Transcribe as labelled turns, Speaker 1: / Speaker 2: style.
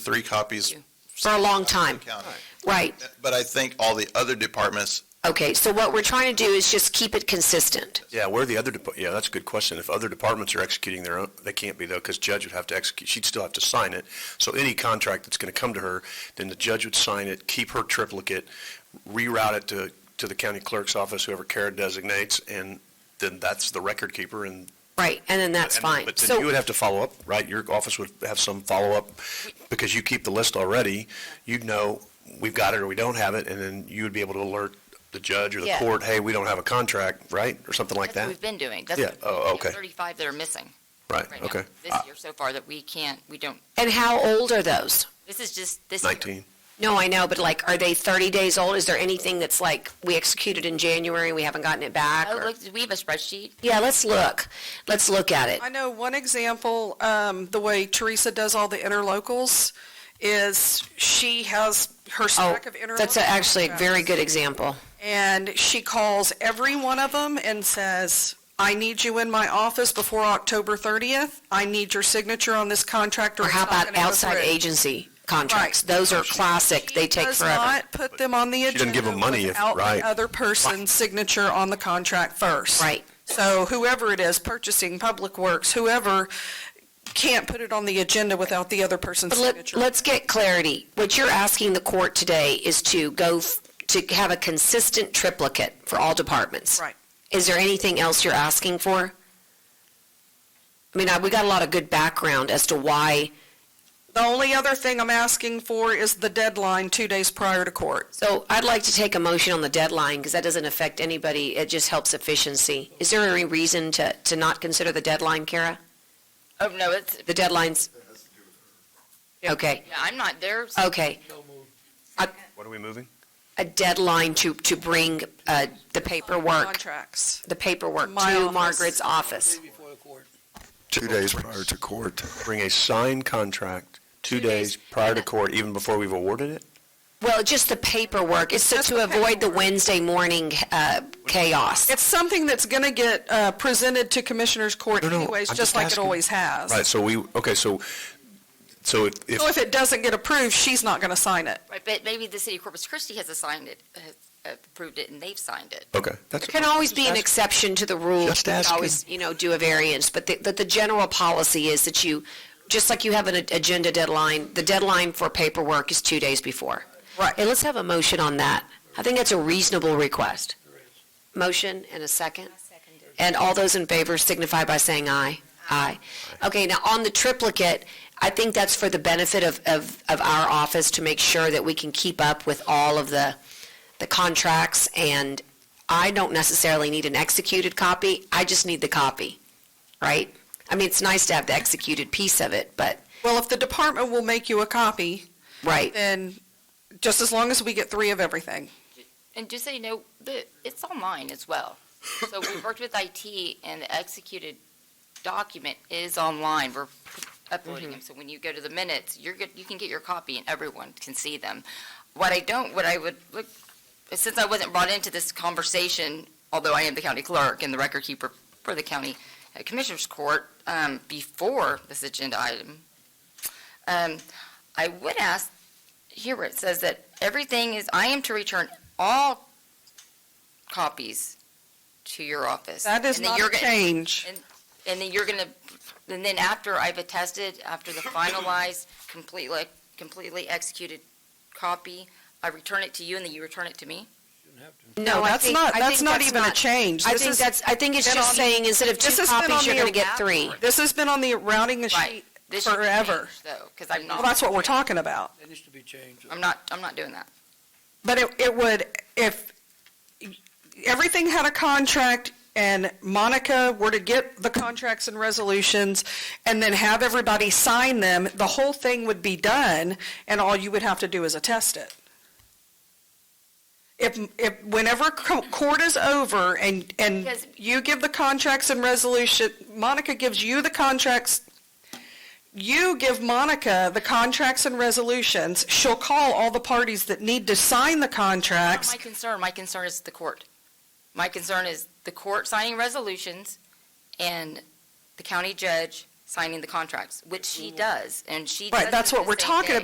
Speaker 1: three copies.
Speaker 2: For a long time.
Speaker 1: County.
Speaker 2: Right,
Speaker 1: But I think all the other departments,
Speaker 2: okay, so what we're trying to do is just keep it consistent.
Speaker 3: Yeah, where the other, depa- yeah, that's a good question. If other departments are executing their own, they can't be though, because judge would have to execute, she'd still have to sign it. So any contract that's going to come to her, then the judge would sign it, keep her triplicate, reroute it to, to the county clerk's office, whoever Kara designates, and then that's the record keeper and.
Speaker 2: Right, and then that's
Speaker 3: and-
Speaker 2: fine.
Speaker 3: But then you
Speaker 2: So,
Speaker 3: would have to follow up, right? Your office would have some follow-up, because you keep the list already. You'd know, we've got it or we don't have it, and then you would be able to alert the judge or the
Speaker 4: Yeah.
Speaker 3: court, hey, we don't have a contract, right? Or something like
Speaker 4: That's what
Speaker 3: that.
Speaker 4: we've been doing. That's
Speaker 3: Yeah,
Speaker 4: what-
Speaker 3: oh,
Speaker 4: we have
Speaker 3: okay.
Speaker 4: Thirty-five that are missing
Speaker 3: Right,
Speaker 4: right now.
Speaker 3: okay. Ah.
Speaker 4: This year so far that we can't, we don't,
Speaker 2: and how old are those?
Speaker 4: this is just this year.
Speaker 3: 19.
Speaker 2: No, I know, but like, are they 30 days old? Is there anything that's like, we executed in January and we haven't gotten it back?
Speaker 4: Oh,
Speaker 2: or-
Speaker 4: look, do we have a spreadsheet?
Speaker 2: Yeah, let's look. Let's look at it.
Speaker 5: I know one example, um, the way Teresa does all the interlocals is she has her
Speaker 2: Oh,
Speaker 5: stack of interlocals.
Speaker 2: that's a- actually a very good example.
Speaker 5: And she calls every one of them and says, I need you in my office before October 30th. I need your signature on this contract or
Speaker 2: Or
Speaker 5: it's
Speaker 2: how
Speaker 5: not
Speaker 2: about
Speaker 5: going to go
Speaker 2: outside
Speaker 5: through."
Speaker 2: agency contracts? Those are classic. They
Speaker 5: She
Speaker 2: take
Speaker 5: does
Speaker 2: forever.
Speaker 5: not put them on the agenda.
Speaker 3: doesn't give them money if-
Speaker 5: without the
Speaker 3: right.
Speaker 5: Other person's signature on the contract first.
Speaker 2: Right.
Speaker 5: So whoever it is, purchasing, public works, whoever, can't put it on the agenda without the other person's
Speaker 2: But let,
Speaker 5: signature.
Speaker 2: let's get clarity. What you're asking the court today is to go, f- to have a consistent triplicate for all departments.
Speaker 5: Right.
Speaker 2: Is there anything else you're asking for? I mean, I, we got a lot of good background as to why,
Speaker 5: The only other thing I'm asking for is the deadline two days prior to court.
Speaker 2: so I'd like to take a motion on the deadline, because that doesn't affect anybody, it just helps efficiency. Is there any reason to, to not consider the deadline, Kara?
Speaker 4: Oh, no, it's,
Speaker 2: The deadline's? Okay,
Speaker 4: yeah, I'm not there.
Speaker 2: okay.
Speaker 3: What are we moving?
Speaker 2: A deadline to, to bring, uh, the paperwork,
Speaker 5: Contracts.
Speaker 2: the paperwork
Speaker 5: My
Speaker 2: to
Speaker 5: office.
Speaker 2: Margaret's office.
Speaker 6: Two days prior to court.
Speaker 3: Bring a signed contract two
Speaker 4: Two days.
Speaker 3: days prior to court, even before we've awarded it?
Speaker 2: Well, just the paperwork, it's to- to avoid the Wednesday morning uh, chaos.
Speaker 5: It's something that's going to get uh, presented to Commissioners Court
Speaker 3: No, no,
Speaker 5: anyways,
Speaker 3: I'm just
Speaker 5: just like it
Speaker 3: asking.
Speaker 5: always has.
Speaker 3: Right, so we, okay, so, so if, if,
Speaker 5: So if it doesn't get approved, she's not going to sign it.
Speaker 4: Right, but maybe the city of Corpus Christi has assigned it, has uh, approved it, and they've signed it.
Speaker 3: okay, that's,
Speaker 2: There can always be an exception to the rule.
Speaker 3: Just
Speaker 2: You can
Speaker 3: asking.
Speaker 2: Always, you know, do a variance, but the, that the general policy is that you, just like you have an a- agenda deadline, the deadline for paperwork is two days before.
Speaker 5: Right.
Speaker 2: Hey, let's have a motion on that. I think that's a reasonable request. Motion and a second? And all those in favor signify by saying aye. Aye. Okay, now on the triplicate, I think that's for the benefit of, of, of our office to make sure that we can keep up with all of the, the contracts. And I don't necessarily need an executed copy, I just need the copy, right? I mean, it's nice to have the executed piece of it, but,
Speaker 5: Well, if the department will make you a copy,
Speaker 2: right.
Speaker 5: then just as long as we get three of everything.
Speaker 4: And just so you know, the, it's online as well. So we worked with IT, and the executed document is online. We're
Speaker 5: Mm-hmm.
Speaker 4: uploading them, so when you go to the minutes, you're, get- you can get your copy, and everyone can see them. What I don't, what I would, look, since I wasn't brought into this conversation, although I am the county clerk and the record keeper for the county uh, commissioners court, um, before this agenda item, um, I would ask, here where it says that everything is, I am to return all copies to your office.
Speaker 5: That is
Speaker 4: And then
Speaker 5: not
Speaker 4: you're
Speaker 5: a
Speaker 4: gonna-
Speaker 5: change.
Speaker 4: And then you're gonna, and then after I've attested, after the finalized, completely, completely executed copy, I return it to you and then you return it to me?
Speaker 2: No, I
Speaker 5: that's
Speaker 2: think-
Speaker 5: not-
Speaker 2: I
Speaker 5: that's
Speaker 2: think
Speaker 5: not even a change.
Speaker 2: I
Speaker 5: This
Speaker 2: think
Speaker 5: is-
Speaker 2: that's, I think it's
Speaker 5: been
Speaker 2: just
Speaker 5: on-
Speaker 2: saying, instead of two
Speaker 5: This has been
Speaker 2: copies,
Speaker 5: on
Speaker 2: you're gonna
Speaker 5: the
Speaker 2: get three.
Speaker 5: This has been on the routing
Speaker 4: Right.
Speaker 5: sheet
Speaker 4: This should be
Speaker 5: forever.
Speaker 4: changed, Though, because I'm
Speaker 5: Well, that's
Speaker 4: not,
Speaker 5: what we're talking about.
Speaker 7: That needs to be changed.
Speaker 4: I'm not, I'm not doing that.
Speaker 5: But it, it would, if everything had a contract and Monica were to get the contracts and resolutions and then have everybody sign them, the whole thing would be done and all you would have to do is attest it. If, if, whenever co- court is over and, and
Speaker 4: Because-
Speaker 5: you give the contracts and resolution, Monica gives you the contracts, you give Monica the contracts and resolutions, she'll call all the parties that need to sign the
Speaker 4: Not
Speaker 5: contracts.
Speaker 4: My concern, my concern is the court. My concern is the court signing resolutions and the county judge signing the contracts, which she does, and she.
Speaker 5: Right,
Speaker 4: does
Speaker 5: that's
Speaker 4: it
Speaker 5: what
Speaker 4: the
Speaker 5: we're
Speaker 4: same
Speaker 5: talking
Speaker 4: day.